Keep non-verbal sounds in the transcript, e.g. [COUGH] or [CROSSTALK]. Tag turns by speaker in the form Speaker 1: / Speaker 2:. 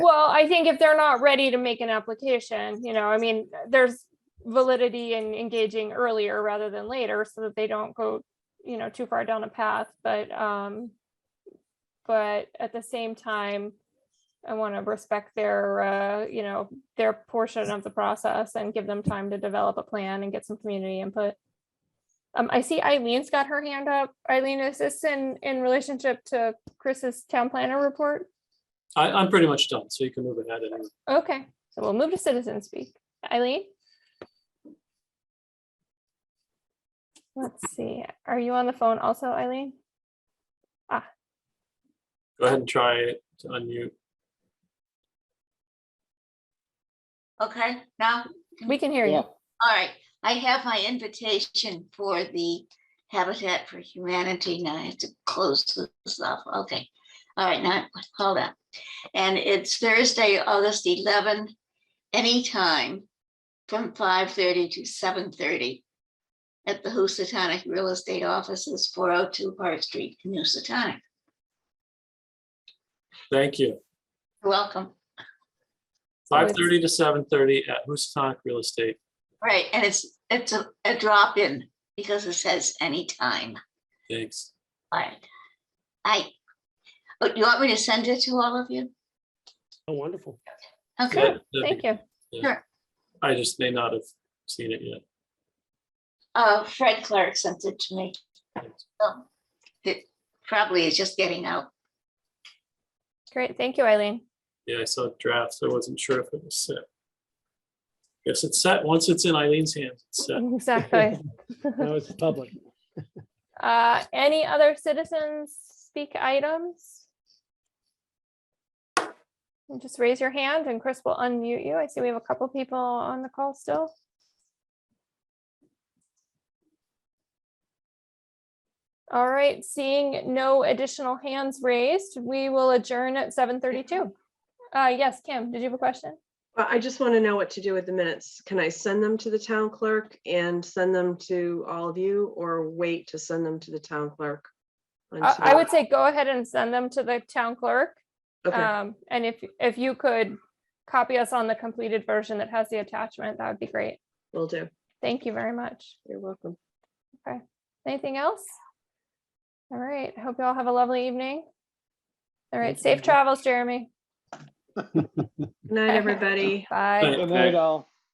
Speaker 1: I think if they're not ready to make an application, you know, I mean, there's validity in engaging earlier rather than later so that they don't go, you know, too far down a path, but, um, but at the same time, I want to respect their, uh, you know, their portion of the process and give them time to develop a plan and get some community input. Um, I see Eileen's got her hand up. Eileen, is this in, in relationship to Chris's town planner report?
Speaker 2: I, I'm pretty much done, so you can move ahead and
Speaker 1: Okay, so we'll move to citizen speak. Eileen? Let's see, are you on the phone also, Eileen?
Speaker 2: go ahead and try to unmute.
Speaker 3: Okay, now,
Speaker 1: We can hear you.
Speaker 3: all right, I have my invitation for the Habitat for Humanity. Now I have to close this off. Okay. All right, now, hold on. And it's Thursday, August 11, anytime from 5:30 to 7:30 at the Housatonic Real Estate Offices, 402 Hart Street, in Housatonic.
Speaker 2: Thank you.
Speaker 3: You're Welcome.
Speaker 1: So
Speaker 2: Five
Speaker 1: it's-
Speaker 2: thirty to seven thirty at Housatonic Real Estate.
Speaker 3: Right, and it's, it's a a drop-in because it says anytime.
Speaker 2: Thanks.
Speaker 3: Alright. I, oh, you want me to send it to all of you?
Speaker 4: Oh, wonderful.
Speaker 3: Okay,
Speaker 1: Thank you.
Speaker 2: I just may not have seen it yet.
Speaker 3: uh, Fred Clark sent it to me.
Speaker 2: Thanks.
Speaker 3: So, It probably is just getting out.
Speaker 1: Great, thank you, Eileen. [LAUGHS]
Speaker 2: Yeah, I saw drafts. I wasn't sure if it was set. Guess it's set. Once it's in Eileen's hands, it's set.
Speaker 1: Exactly.
Speaker 4: No, it's public.
Speaker 1: Uh, any other citizens speak items? And Just raise your hand and Chris will unmute you. I see we have a couple people on the call still. All right, seeing no additional hands raised, we will adjourn at seven thirty-two. Uh, yes, Kim, did you have a question?
Speaker 5: Well, I just want to know what to do with the minutes. Can I send them to the town clerk and send them to all of you or wait to send them to the town clerk?
Speaker 1: I, I
Speaker 5: until-
Speaker 1: would say go ahead and send them to the town clerk.
Speaker 5: Okay,
Speaker 1: Um, and if, if you could copy us on the completed version that has the attachment, that would be great.
Speaker 5: will do.
Speaker 1: Thank you very much.
Speaker 5: You're welcome.
Speaker 1: Anything else? All right, hope you all have a lovely evening. All right,
Speaker 4: Thank you.
Speaker 1: safe travels, Jeremy.
Speaker 5: Good night, everybody.
Speaker 1: Bye.
Speaker 2: Bye.
Speaker 4: Good night, all.